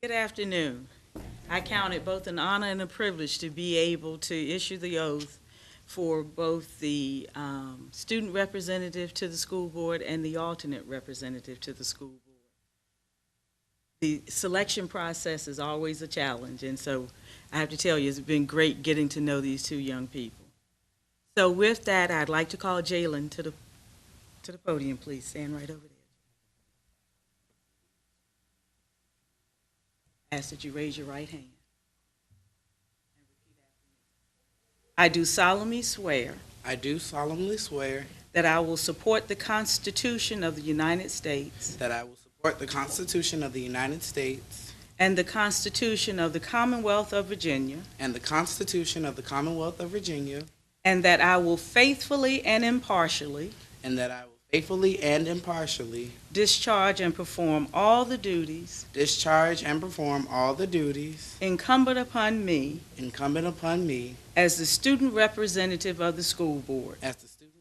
Good afternoon. I count it both an honor and a privilege to be able to issue the oath for both the um, student representative to the school board and the alternate representative to the school board. The selection process is always a challenge, and so I have to tell you, it's been great getting to know these two young people. So with that, I'd like to call Jalen to the, to the podium, please. Stand right over there. ask that you raise your right hand. I do solemnly swear I do solemnly swear that I will support the Constitution of the United States that I will support the Constitution of the United States and the Constitution of the Commonwealth of Virginia, and the Constitution of the Commonwealth of Virginia, and that I will faithfully and impartially and that I will faithfully and impartially discharge and perform all the duties discharge and perform all the duties incumbent upon me incumbent upon me as the student representative of the school board as the student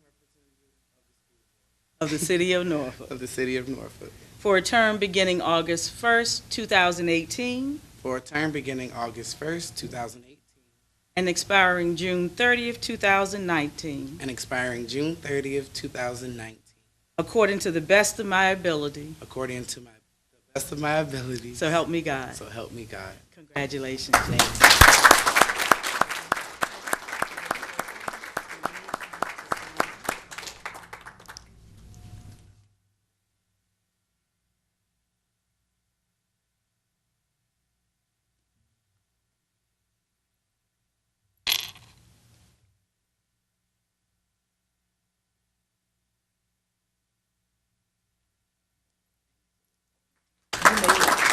of the city of Norfolk of the City of Norfolk for a term beginning August 1st, 2018, for a term beginning August 1st, 2008, and expiring June 30th, 2019, and expiring June 30th, 2019, according to the best of my ability. according to my, the best of my ability. So help me God. So help me God. Congratulations.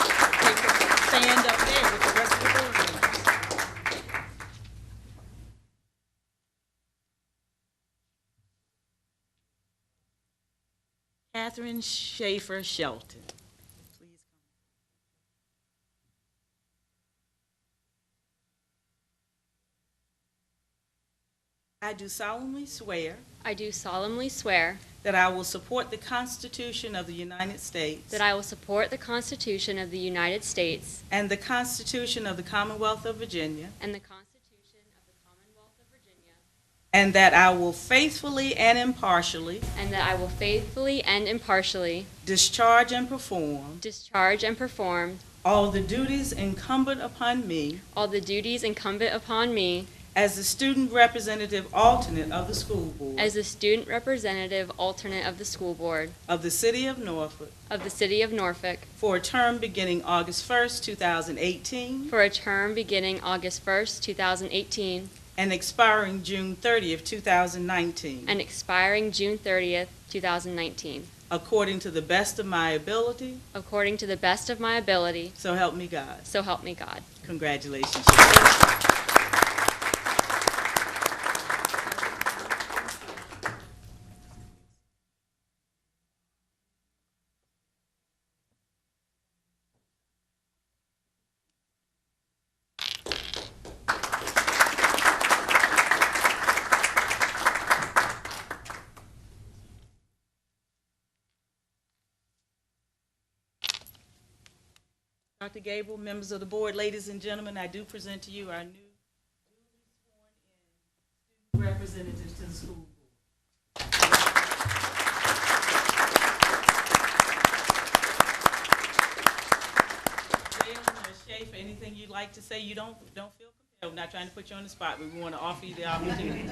Stand up there with the rest of the board. members. Catherine Schaefer Shelton. Please come. I do solemnly swear I do solemnly swear that I will support the Constitution of the United States that I will support the Constitution of the United States and the Constitution of the Commonwealth of Virginia, and the Constitution of the Commonwealth of Virginia, and that I will faithfully and impartially and that I will faithfully and impartially discharge and perform discharge and perform all the duties incumbent upon me all the duties incumbent upon me as the student representative alternate of the school board as the student representative alternate of the school board of the City of Norfolk of the City of Norfolk for a term beginning August 1st, 2018, for a term beginning August 1st, 2018, and expiring June 30th, 2019, and expiring June 30th, 2019, according to the best of my ability, according to the best of my ability, so help me God. so help me God. Congratulations. Dr. Gable, members of the board, ladies and gentlemen, I do present to you our new duly sworn in student representatives to the school board. Jalen or Schaefer, anything you'd like to say? You don't, don't feel compelled, We're not trying to put you on the spot, but we want to offer you the opportunity.